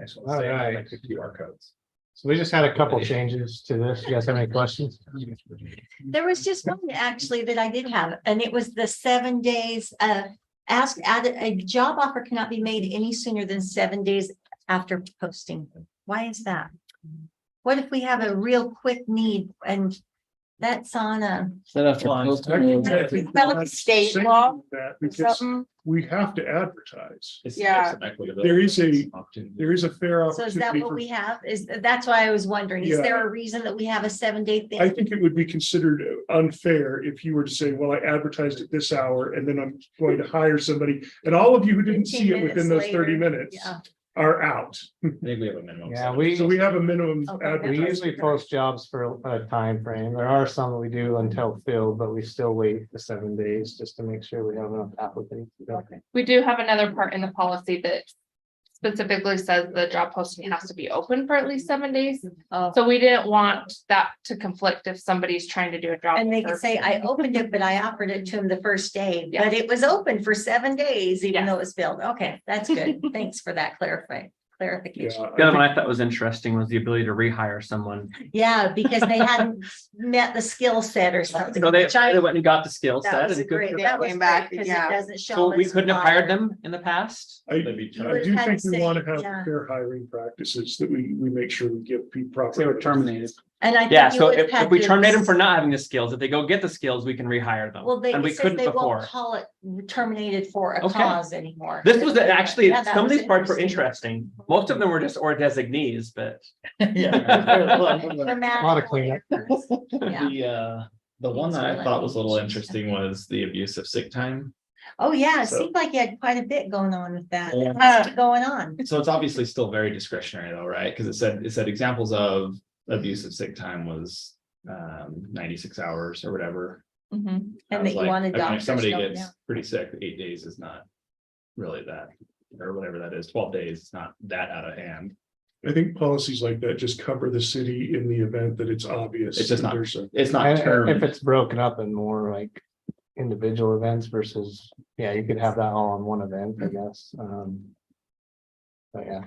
Excellent. All Same right. with the QR codes. So we just had a couple changes to this. You guys have any questions? There was just one actually that I did have, and it was the seven days, uh, ask, add, a job offer cannot be made any sooner than seven days after posting. Why is that? What if we have a real quick need and that's on uh, a, Set up for Well, post- Well, it's state law. That because something? we have to advertise. Yeah. There is a- There is a fair So is that opportunity. what for- we have? Is, that's why I was wondering, is Yeah. there a reason that we have a seven day I thing? think it would be considered unfair if you were to say, well, I advertised at this hour and then I'm going to hire somebody. And all of you who didn't 15 see it within those minutes thirty later. minutes Yeah. are out. I think we have a minimum. Yeah, we- So we have a minimum Okay. We advertising. usually post jobs for a time frame. There are some that we do until filled, but we still wait the seven days just to make sure we have enough applicants. We do have another part in the policy that specifically says the job posting has to be open for at least seven days. Oh. So we didn't want that to conflict if somebody's trying to do a job. And they can for- say, I opened it, but I offered it to him the first day, Yeah. but it was open for seven days, even Yeah. though it was filled. Okay, that's good. Thanks for that clarifying, clarification. Yeah, The I other think- one I thought was interesting was the ability to rehire someone. Yeah, because they hadn't met the skill set or something. So they, which I- they went and got the skill That set was a and good. great, for- that was Came great, back, because it yeah. doesn't show. So them we as couldn't have hired fired. them in the past. I, That'd be I tough. do Kind think of we want to safe, have yeah. fair hiring practices that we, we make sure we give people proper. They were terminated. And I. think Yeah, you so would if, have if we to- terminate them for not having the skills, if they go get the skills, we can rehire them. Well, they, And we it says couldn't they won't before. call it terminated for a Okay. cause anymore. This was actually, Yeah, that some of was these parts were interesting. Most of them were just or designees, but. Yeah. Grammatical Lot of cleanup. errors. Yeah. The, uh, the one that I thought was a little interesting was the abuse of sick time. Oh, yeah, it So- seemed like you had quite a bit going on with that. Yeah. Lots Going on. So it's obviously still very discretionary though, right? Because it said, it said examples of abuse of sick time was um ninety-six hours or whatever. Mhm. I was And that you like, want a I mean, doctor If somebody showing gets up. pretty sick, eight days is not really that, or whatever that is, twelve days, it's not that out of hand. I think policies like that just cover the city in the event that it's obvious. It's just that not- there's a- It's not And term. if it's broken up in more like individual events versus, yeah, you could have that all in one event, I guess. Um. But yeah.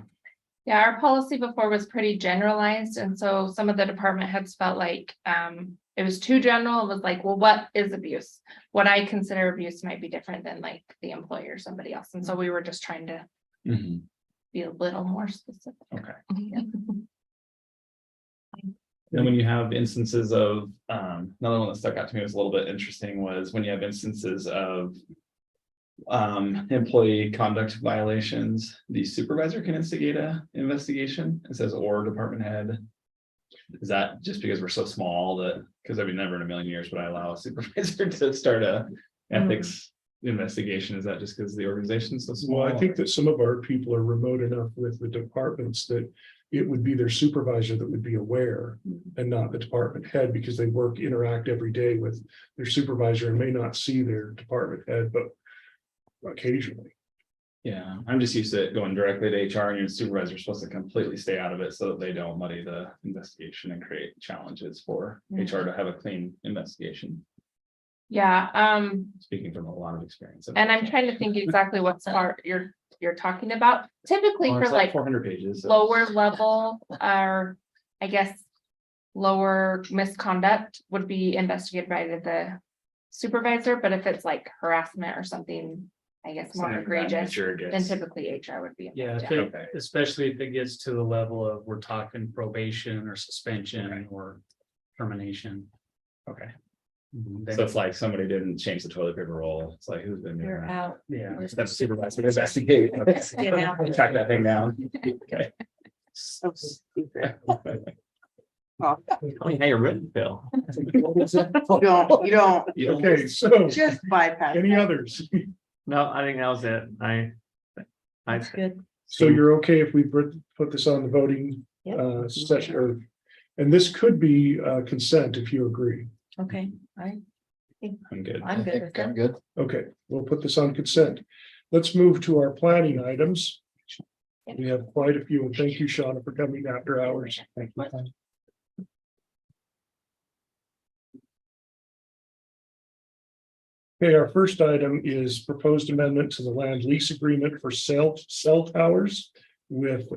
Yeah, our policy before was pretty generalized, and so some of the department heads felt like, um, it was too general, it was like, well, what is abuse? What I consider abuse might be different than like the employer or somebody else, and so we were just trying to Mhm. be a little more specific. Okay. Mhm. And when you have instances of, um, another one that stuck out to me was a little bit interesting was when you have instances of. Um, employee conduct violations, the supervisor can instigate a investigation, it says or department head. Is that just because we're so small that, because I mean, never in a million years would I allow a supervisor to start a Mm-hmm. ethics investigation, is that just because the organization's so small? Well, I think that some of our people are remote enough with the departments that it would be their supervisor that would be aware Mm-hmm. and not the department head because they work, interact every day with their supervisor and may not see their department head, but occasionally. Yeah, I'm just used to it going directly to HR and your supervisor's supposed to completely stay out of it so that they don't muddy the investigation and create challenges for HR Mm-hmm. to have a clean investigation, Yeah, um, speaking from a lot of experience. And I'm trying to think exactly what part you're, you're talking about. Typically for like Four hundred pages. so- lower level, or I guess. Lower misconduct would be investigated by the supervisor, but if it's like harassment or something, I guess more Something of that egregious. nature Then gets- typically HR would be. Yeah, involved, if it- Okay. especially if it gets to the level of we're talking probation or suspension or termination. Okay, then- so it's like somebody didn't change the toilet paper roll. It's like, who's been doing You're that? out. Yeah. That's supervisor to investigate. Get out. Track that thing down. Okay. So stupid. Tell me how you're written, Bill. You don't, you don't, You don't- Okay, so just bypass. any others? No, I think that was it. I. I, That's good. So you're okay if we put, put this on the voting Yep. uh session or, and this could be uh consent if you agree. Okay, I, I'm good. I'm good with that. good. Okay, we'll put this on consent. Let's move to our planning items. We have quite a few, and thank you, Shauna, for coming after hours. Thank you. Okay, our first item is proposed amendment to the land lease agreement for cell, cell towers with